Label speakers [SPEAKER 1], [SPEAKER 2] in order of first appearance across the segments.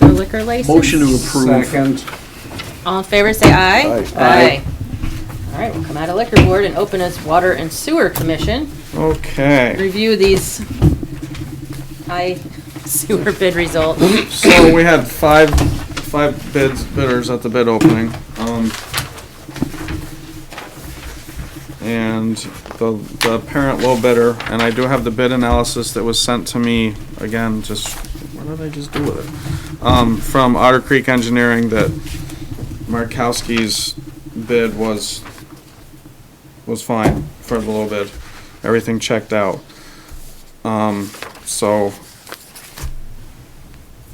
[SPEAKER 1] liquor license?
[SPEAKER 2] Motion to approve.
[SPEAKER 3] Second.
[SPEAKER 1] All in favor, say aye.
[SPEAKER 2] Aye. Aye.
[SPEAKER 1] All right, we'll come out of liquor board and open as Water and Sewer Commission.
[SPEAKER 4] Okay,
[SPEAKER 1] Review these high sewer bid results.
[SPEAKER 4] so we had five, five bids, bidders at the bid opening, um. And the, the apparent low bidder, and I do have the bid analysis that was sent to me, again, just, what did I just do with it? Um, from Otter Creek Engineering that Markowski's bid was, was fine for the low bid. Everything checked out. Um, so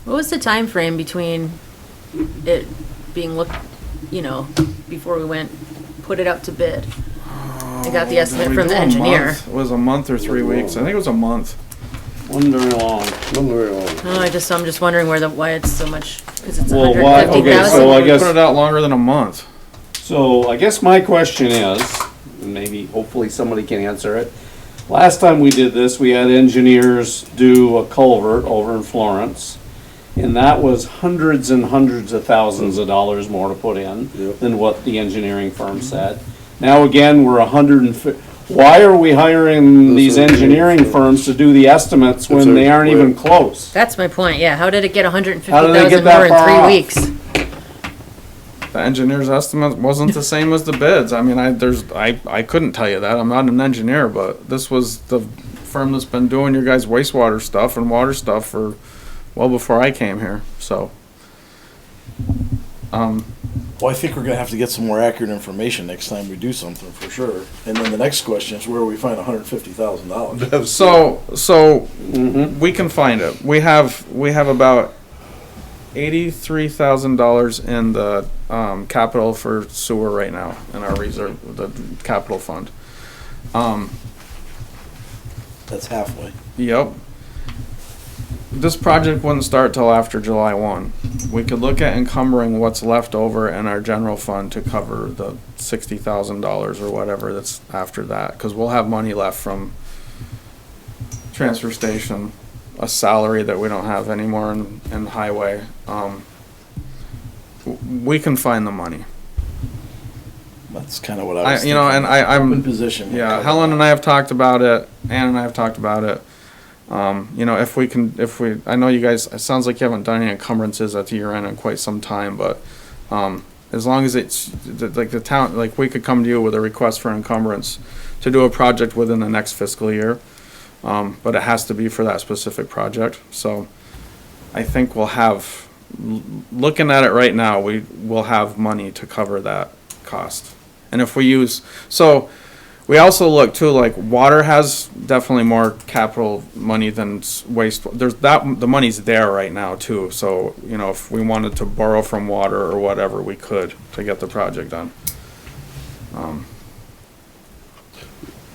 [SPEAKER 1] What was the time frame between it being looked, you know, before we went, put it up to bid? I got
[SPEAKER 3] Uh,
[SPEAKER 1] the estimate
[SPEAKER 4] We
[SPEAKER 1] from
[SPEAKER 4] do
[SPEAKER 1] the
[SPEAKER 4] a
[SPEAKER 1] engineer.
[SPEAKER 4] month. It was a month or three weeks. I think it was a month.
[SPEAKER 3] Wasn't very long.
[SPEAKER 2] Don't worry about it.
[SPEAKER 1] No, I just, I'm just wondering where the, why it's so much, because it's
[SPEAKER 3] Well, why- okay,
[SPEAKER 1] 150,000.
[SPEAKER 3] so I
[SPEAKER 4] We
[SPEAKER 3] guess-
[SPEAKER 4] Put it out longer than a month.
[SPEAKER 3] So I guess my question is, and maybe hopefully somebody can answer it. Last time we did this, we had engineers do a culvert over in Florence. And that was hundreds and hundreds of thousands of dollars more to put in
[SPEAKER 2] Yep.
[SPEAKER 3] than what the engineering firm said. Now again, we're a hundred and fif- why are we hiring
[SPEAKER 2] Those
[SPEAKER 3] these
[SPEAKER 2] are the
[SPEAKER 3] engineering
[SPEAKER 2] engineering
[SPEAKER 3] firms
[SPEAKER 2] firms.
[SPEAKER 3] to do the estimates when
[SPEAKER 2] That's
[SPEAKER 3] they
[SPEAKER 2] our-
[SPEAKER 3] aren't even close?
[SPEAKER 1] That's my point, yeah. How did it get hundred and fifty
[SPEAKER 3] How did they
[SPEAKER 1] thousand
[SPEAKER 3] get
[SPEAKER 1] more
[SPEAKER 3] that far
[SPEAKER 1] in
[SPEAKER 3] off?
[SPEAKER 1] three weeks?
[SPEAKER 4] The engineer's estimate wasn't the same as the bids. I mean, I, there's, I, I couldn't tell you that. I'm not an engineer, but this was the firm that's been doing your guys' wastewater stuff and water stuff for well before I came here, so. Um,
[SPEAKER 5] Well, I think we're gonna have to get some more accurate information next time we do something, for sure. And then the next question is where we find hundred and fifty thousand dollars.
[SPEAKER 4] so, so we can find it. We have, we have about eighty-three thousand dollars in the, um, capital for sewer right now in our reserve, the capital fund. Um,
[SPEAKER 5] That's halfway.
[SPEAKER 4] Yep. This project wouldn't start till after July one. We could look at encumbering what's left over in our general fund to cover the sixty thousand dollars or whatever that's after that, cause we'll have money left from transfer station, a salary that we don't have anymore in, in highway, um. w- We can find the money.
[SPEAKER 5] That's kinda what I
[SPEAKER 4] I,
[SPEAKER 5] was.
[SPEAKER 4] you know, and
[SPEAKER 5] thinking.
[SPEAKER 4] I, I'm.
[SPEAKER 5] Good position.
[SPEAKER 4] Yeah, Helen and I have talked about it. Ann and I have talked about it. Um, you know, if we can, if we, I know you guys, it sounds like you haven't done any encumbrances at the year end in quite some time, but, um, as long as it's, th- like the town, like we could come to you with a request for encumbrance to do a project within the next fiscal year. Um, but it has to be for that specific project, so I think we'll have, l- looking at it right now, we will have money to cover that cost. And if we use, so, we also look too, like water has definitely more capital money than s- waste. There's that, the money's there right now too. So, you know, if we wanted to borrow from water or whatever, we could to get the project done.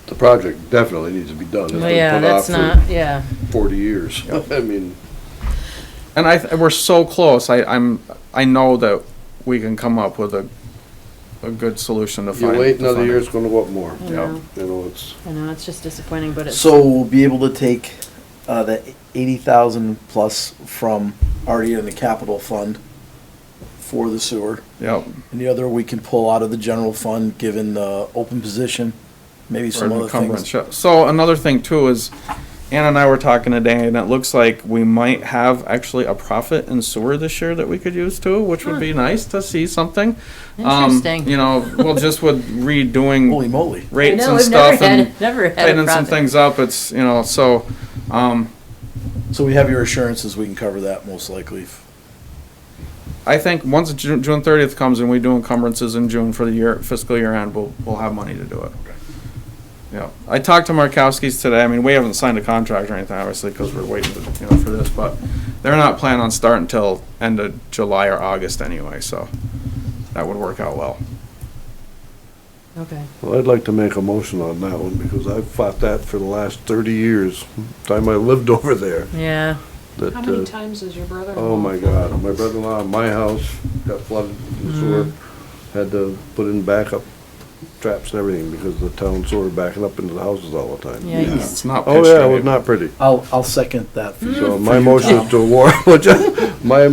[SPEAKER 2] The project definitely needs to be done. It's
[SPEAKER 1] Well,
[SPEAKER 2] been
[SPEAKER 1] yeah,
[SPEAKER 2] put
[SPEAKER 1] that's
[SPEAKER 2] off for
[SPEAKER 1] not, yeah.
[SPEAKER 2] Forty years. I mean,
[SPEAKER 4] And I, th- we're so close. I, I'm, I know that we can come up with a, a good solution to
[SPEAKER 2] you
[SPEAKER 4] find.
[SPEAKER 2] wait
[SPEAKER 4] to
[SPEAKER 2] another
[SPEAKER 4] fund it.
[SPEAKER 2] year, it's gonna go up more.
[SPEAKER 1] I know,
[SPEAKER 2] You know, it's,
[SPEAKER 1] I know, it's just disappointing, but it's,
[SPEAKER 5] So we'll be able to take, uh, the eighty thousand plus from already in the capital fund for the sewer.
[SPEAKER 4] Yep.
[SPEAKER 5] And the other we can pull out of the general fund, given the open position, maybe
[SPEAKER 4] or
[SPEAKER 5] some other
[SPEAKER 4] encumbrance,
[SPEAKER 5] things.
[SPEAKER 4] yeah. So another thing too is, Ann and I were talking today, and it looks like we might have actually a profit in sewer this year that we could use too, which would be nice to see something. Um,
[SPEAKER 1] Interesting.
[SPEAKER 4] You know, well, just with redoing
[SPEAKER 5] Holy moly.
[SPEAKER 1] I
[SPEAKER 4] rates
[SPEAKER 1] know,
[SPEAKER 4] and
[SPEAKER 1] we've never
[SPEAKER 4] stuff and
[SPEAKER 1] had, never had a
[SPEAKER 4] tightening some
[SPEAKER 1] profit.
[SPEAKER 4] things up, it's, you know, so, um,
[SPEAKER 5] So we have your assurances, we can cover that most likely.
[SPEAKER 4] I think once Ju- June thirtieth comes and we do encumbrances in June for the year, fiscal year end, we'll, we'll have money to do it. Yeah, I talked to Markowski's today, I mean, we haven't signed a contract or anything, obviously, because we're waiting, to- you know, for this, but they're not planning on starting until end of July or August anyway, so that would work out well.
[SPEAKER 1] Okay.
[SPEAKER 2] well, I'd like to make a motion on that one because I've fought that for the last thirty years, time I lived over there.
[SPEAKER 1] Yeah,
[SPEAKER 2] That,
[SPEAKER 6] How many
[SPEAKER 2] uh,
[SPEAKER 6] times has your brother?
[SPEAKER 2] Oh my God, my brother-in-law, my house got flooded with
[SPEAKER 1] Mm-hmm.
[SPEAKER 2] sewer, had to put in backup traps and everything because the town sewer backing up into the houses all the time.
[SPEAKER 1] yeah, he's-
[SPEAKER 4] It's not
[SPEAKER 2] Oh,
[SPEAKER 4] pitched
[SPEAKER 2] yeah, it
[SPEAKER 4] right.
[SPEAKER 2] was not pretty.
[SPEAKER 1] Mm-hmm.
[SPEAKER 5] I'll, I'll second that.
[SPEAKER 2] So my motion is to award, my